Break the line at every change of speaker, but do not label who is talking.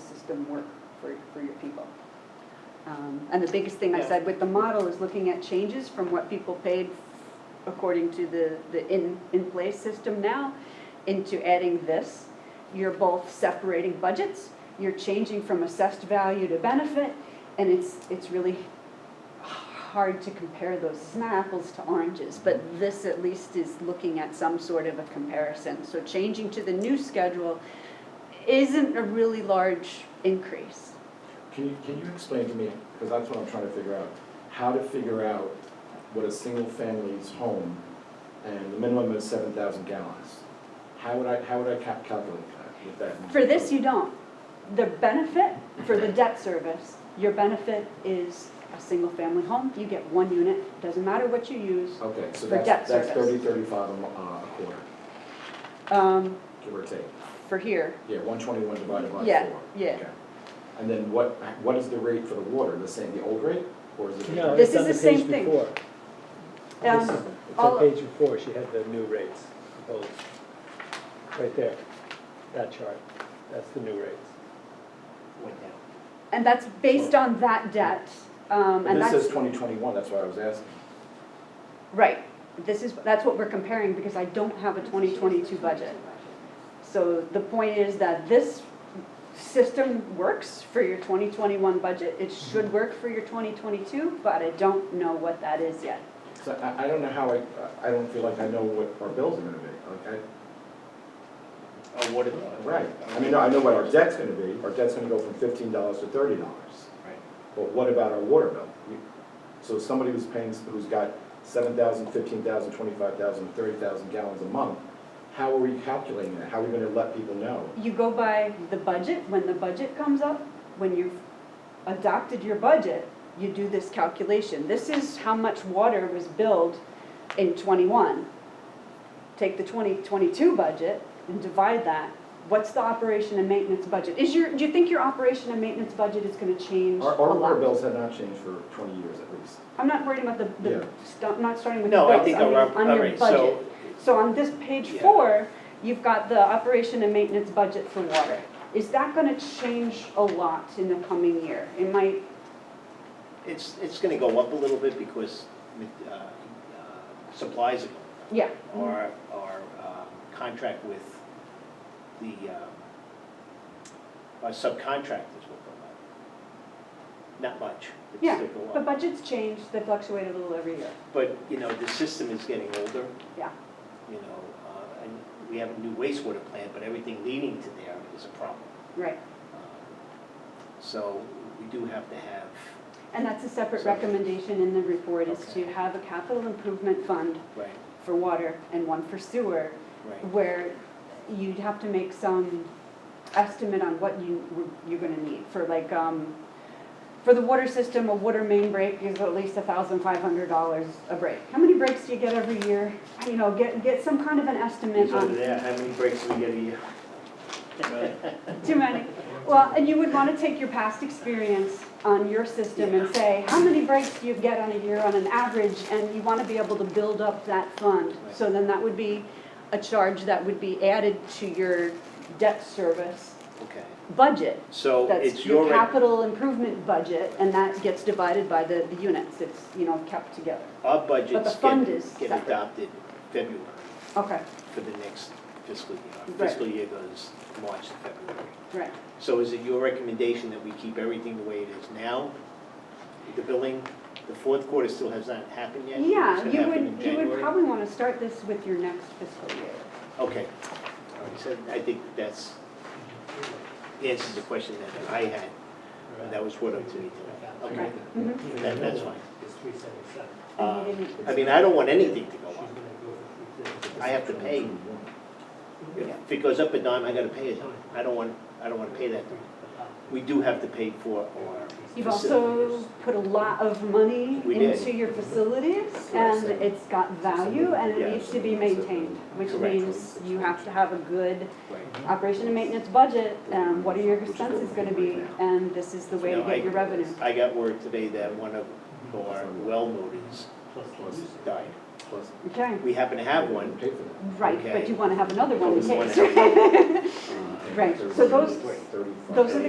system work for, for your people. Um, And the biggest thing I
Yeah.
said with the model is looking at changes from what people paid according to the, the in, in place system now into adding this. You're both separating budgets, you're changing from assessed value to benefit, and it's, it's really hard to compare those. It's not apples to oranges, but this at least is looking at some sort of a comparison. So changing to the new schedule isn't a really large increase.
Can you, can you explain to me, because that's what I'm trying to figure out, how to figure out what a single family's home and the minimum is seven thousand gallons? How would I, how would I ca- calculate that with that?
For this, you don't. The benefit for the debt service, your benefit is a single-family home. You get one unit, doesn't matter what you use.
Okay, so
for debt
that's, that's
service.
thirty, thirty-five a mo- uh, a quarter,
Um,
give or take.
for here,
Yeah, one twenty-one divided by four.
Yeah, yeah.
Okay. And then what, what is the rate for the water, the same, the old rate, or is it?
No,
This
it's
is
on
the
the
same
page
thing.
before. This is-
um,
It's
all-
on page before, she had the new rates proposed. Right there, that chart, that's the new rates.
went down.
and that's based on that debt, um, and
This
that's.
says twenty twenty-one, that's why I was asking.
Right, this is, that's what we're comparing, because I don't have a twenty twenty-two budget. So the point is that this system works for your twenty twenty-one budget, it should work for your twenty twenty-two, but I don't know what that is yet.
So I, I don't know how I, I don't feel like I know what our bills are gonna be, like, I,
Oh, what it
Right, I mean, I know what our debt's gonna be, our debt's gonna go from fifteen dollars to thirty dollars,
Right.
but what about our water bill? You- So somebody who's paying, who's got seven thousand, fifteen thousand, twenty-five thousand, thirty thousand gallons a month, how are we calculating that? How are we gonna let people know?
You go by the budget, when the budget comes up, when you've adopted your budget, you do this calculation. This is how much water was billed in twenty-one. Take the twenty twenty-two budget and divide that. What's the operation and maintenance budget? Is your, do you think your operation and maintenance budget is gonna change a
Our, our water
lot?
bills have not changed for twenty years at least.
I'm not worried about the,
Yeah.
the, st- I'm not starting with the
No, I
bills,
think,
I
all
mean,
right,
on
all
your
right,
budget.
so,
So on this page
Yeah.
four, you've got the operation and maintenance budget for water. Is that gonna change a lot in the coming year? It might,
it's, it's gonna go up a little bit because, uh, uh, supplies are going
yeah. Mm-hmm.
up. Our, our, um, contract with the, um, our subcontractors will go up. Not much, but
Yeah,
still go
But
up.
budgets change, they fluctuate a little every year.
But, you know, the system is getting older.
Yeah.
You know, uh, and we have a new wastewater plant, but everything leading to there is a problem.
Right.
Um, So we do have to have,
And that's a separate
So-
recommendation in the report is
Okay.
to have a capital improvement fund
right,
for water and one for sewer,
right.
where you'd have to make some estimate on what you, you're gonna need for like, um, for the water system, a water main break is at least thousand five hundred dollars a break. How many breaks do you get every year? You know, get, get some kind of an estimate
Over
on,
there, how many breaks do we get a year?
too many. Well, and you would wanna take your past experience on your system and say, how many breaks do you get on a year on an average? And you wanna be able to build up that fund.
Right.
So then that would be a charge that would be added to your debt service
Okay,
budget.
so
That's
it's
your
your, rec-
capital improvement budget, and that gets divided by the, the units, it's, you know, kept together.
our
but the
budgets
fund is
get, get
separate.
adopted February
Okay,
for the next fiscal year. Our
Right.
Fiscal year goes March to February.
right.
So is it your recommendation that we keep everything the way it is now? The billing, the fourth quarter still has not happened yet? It's
Yeah,
gonna
you
happen in
would, you would
January?
probably wanna start this with your next fiscal year.
Okay, all right, so I think that's, answers the question that I had, and that was forwarded to me today. Okay,
Mhm.
that, that's fine.
It's three seventy-seven.
Uh,
And you didn't-
I mean, I don't want anything to go
She's gonna
up.
go for three fifty.
I have to pay.
Yeah.
If it goes up a dime, I gotta pay it. I don't want, I don't wanna pay that. We do have to pay for our.
You've
facility.
also put a lot of money
We did.
into your facilities,
Correct.
and it's got value, and it
Yeah.
needs to be maintained, which
Correct.
means you have to have a good
Right.
operation and maintenance budget, um, what are your expenses gonna be, and this is the way to
No, I-
get your revenue.
I got word today that one of our well motors
Plus the use.
died.
Plus,
Okay.
We happen to have
we
one.
pay for that.
Right,
Okay.
but you want to have another one in
One
case.
and a half.
Right, so those-
Thirty-five.
those are the